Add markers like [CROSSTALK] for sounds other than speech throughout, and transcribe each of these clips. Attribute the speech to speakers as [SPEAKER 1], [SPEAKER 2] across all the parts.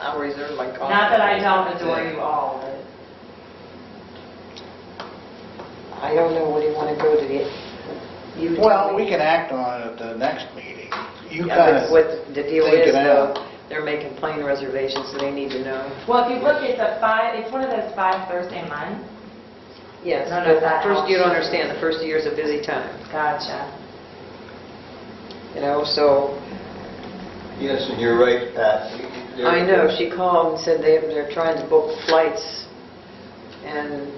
[SPEAKER 1] adore like.
[SPEAKER 2] [LAUGHS]
[SPEAKER 1] all-
[SPEAKER 2] Not that I don't adore you all, but
[SPEAKER 1] I don't know, what do you want to go to the, you
[SPEAKER 3] Well,
[SPEAKER 1] tell
[SPEAKER 3] we
[SPEAKER 1] me.
[SPEAKER 3] can act on it at the next meeting. You
[SPEAKER 1] Yeah,
[SPEAKER 3] kind
[SPEAKER 1] but
[SPEAKER 3] of,
[SPEAKER 1] What the deal
[SPEAKER 3] think it
[SPEAKER 1] is though,
[SPEAKER 3] out.
[SPEAKER 1] they're making plane reservations, so they need to know.
[SPEAKER 2] well, if you look, it's a five, it's one of those five Thursday months.
[SPEAKER 1] Yes,
[SPEAKER 2] No, no,
[SPEAKER 1] but
[SPEAKER 2] that
[SPEAKER 1] first, you
[SPEAKER 2] helps.
[SPEAKER 1] don't understand, the first year's a busy time,
[SPEAKER 2] Gotcha.
[SPEAKER 1] you know, so,
[SPEAKER 4] Yes, and you're right, Pat.
[SPEAKER 1] I know, she called and said they, they're trying to book flights, and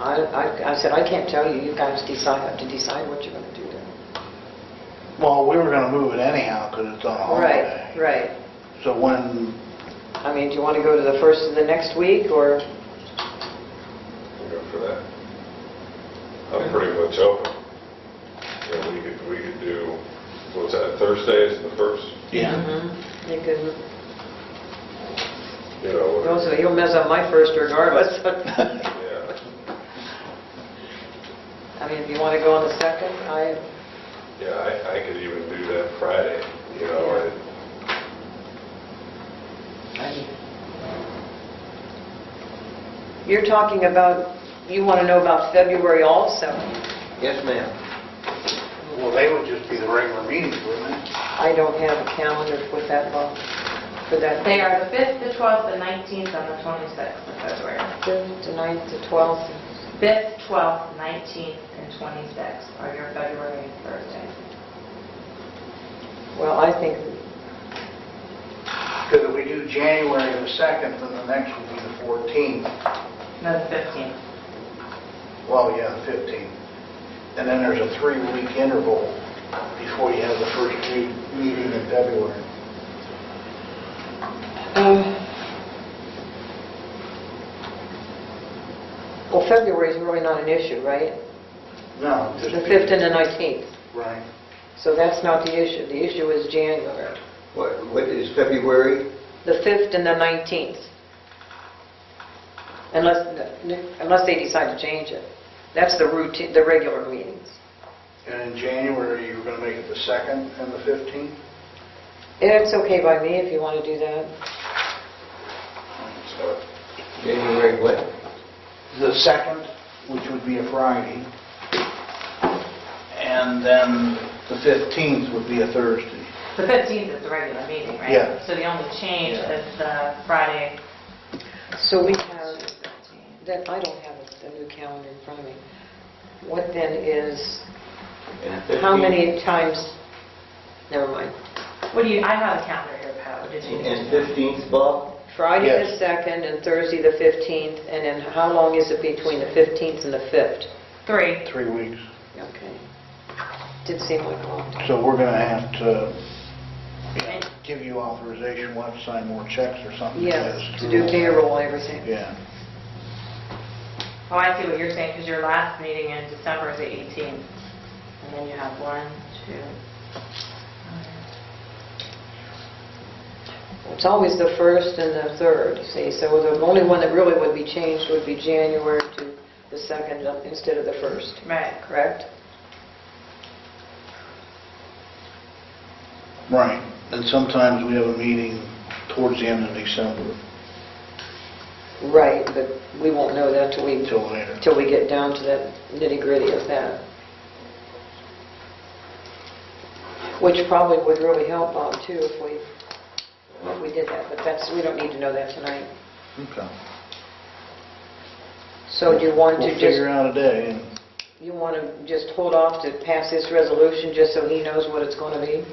[SPEAKER 1] I, I, I said, I can't tell you, you guys decide, have to decide what you're gonna do then.
[SPEAKER 3] well, we were going to move it anyhow because it's on a
[SPEAKER 1] Right,
[SPEAKER 3] holiday.
[SPEAKER 1] right.
[SPEAKER 3] So when,
[SPEAKER 1] I mean, do you want to go to the first of the next week, or,
[SPEAKER 5] We'll go for that. I'm pretty much open. You know, we could, we could do, what's that, Thursday is the first,
[SPEAKER 3] yeah,
[SPEAKER 1] you could,
[SPEAKER 5] you know? what-
[SPEAKER 1] also, you'll mess up my first regardless. [LAUGHS]
[SPEAKER 5] Yeah.
[SPEAKER 1] I mean, if you want to go on the second, I,
[SPEAKER 5] Yeah, I, I could even do that Friday, you know, and
[SPEAKER 1] I... You're talking about, you want to know about February also?
[SPEAKER 4] Yes, ma'am.
[SPEAKER 1] Mm-hmm.
[SPEAKER 3] well, they would just be the regular meetings, wouldn't it?
[SPEAKER 1] I don't have a calendar for that month, for that...
[SPEAKER 2] They are the 5th, the 12th, the 19th, and the 26th of February.
[SPEAKER 1] Fifth, the ninth, the 12th.
[SPEAKER 2] 5th, 12th, 19th, and 26th are your February Thursdays.
[SPEAKER 1] Well, I think, [SIGHS]
[SPEAKER 3] Because if we do January the 2nd, then the next would be the 14th.
[SPEAKER 2] No, the 15th.
[SPEAKER 3] Well, yeah, the 15th. And then there's a three-week interval before you have the first me- meeting in February.
[SPEAKER 1] well, February is really not an issue, right?
[SPEAKER 3] No, just...
[SPEAKER 1] The
[SPEAKER 3] be-
[SPEAKER 1] 5th and the 19th.
[SPEAKER 3] Right.
[SPEAKER 1] So that's not the issue. The issue is January.
[SPEAKER 4] What, what is February?
[SPEAKER 1] The 5th and the 19th. Unless, unless they decide to change it. That's the routine, the regular meetings.
[SPEAKER 3] And in January, you were going to make it the 2nd and the 15th?
[SPEAKER 1] It's okay by me if you want to do that.
[SPEAKER 5] so,
[SPEAKER 4] January what?
[SPEAKER 3] the second, which would be a Friday, and then the 15th would be a Thursday.
[SPEAKER 2] The 15th is the regular meeting, right?
[SPEAKER 3] Yeah.
[SPEAKER 2] So the only change
[SPEAKER 3] Yeah.
[SPEAKER 2] is the Friday.
[SPEAKER 1] So we have, that, I don't have a a new calendar in front of me. What then is,
[SPEAKER 4] And
[SPEAKER 1] how
[SPEAKER 4] 15th?
[SPEAKER 1] many times, never mind.
[SPEAKER 2] What do you, I have a calendar here, Pat, what did you?
[SPEAKER 4] And 15th, Bob?
[SPEAKER 1] Friday the
[SPEAKER 3] Yes.
[SPEAKER 1] 2nd and Thursday the 15th, and then how long is it between the 15th and the 5th?
[SPEAKER 2] Three.
[SPEAKER 3] Three weeks.
[SPEAKER 1] Okay. Did seem like a long time.
[SPEAKER 3] So we're going to have to give you authorization, we'll have to sign more checks or something.
[SPEAKER 1] Yes,
[SPEAKER 3] because
[SPEAKER 1] to
[SPEAKER 3] through-
[SPEAKER 1] do payroll and everything.
[SPEAKER 3] Yeah.
[SPEAKER 2] Oh, I see what you're saying, because your last meeting in December is the 18th. And then you have one, two.
[SPEAKER 1] It's always the first and the third, see, so the only one that really would be changed would be January to the second instead of the first,
[SPEAKER 2] Right.
[SPEAKER 1] correct?
[SPEAKER 3] Right. And sometimes we have a meeting towards the end of December,
[SPEAKER 1] Right, but we won't know that till we,
[SPEAKER 3] until later.
[SPEAKER 1] till we get down to that nitty-gritty of that. Which probably would really help Bob too if we, if we did that, but that's, we don't need to know that tonight.
[SPEAKER 3] Okay.
[SPEAKER 1] So do you want to
[SPEAKER 3] We'll
[SPEAKER 1] just...
[SPEAKER 3] figure out a day, and
[SPEAKER 1] You want to just hold off to pass this resolution just so he knows what it's going to be?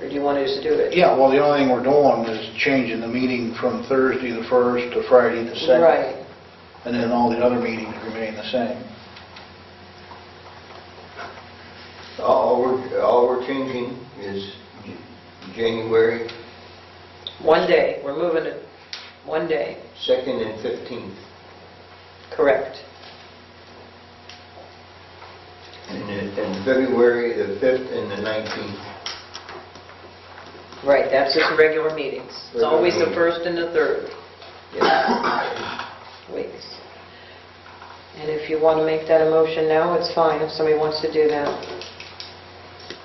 [SPEAKER 1] Or do you want to just do it?
[SPEAKER 3] Yeah, well, the only thing we're doing is changing the meeting from Thursday the 1st to Friday the 2nd.
[SPEAKER 1] Right.
[SPEAKER 3] And then all the other meetings remain the same.
[SPEAKER 4] All we're, all we're changing is J- January
[SPEAKER 1] One day, we're moving it, one day,
[SPEAKER 4] 2nd and 15th.
[SPEAKER 1] correct.
[SPEAKER 4] And then- and February the 5th and the 19th.
[SPEAKER 1] Right, that's just regular meetings. It's always the
[SPEAKER 4] Regular meetings.
[SPEAKER 1] first and the third
[SPEAKER 4] Yes.
[SPEAKER 1] weeks. And if you want to make that a motion now, it's fine, if somebody wants to do that.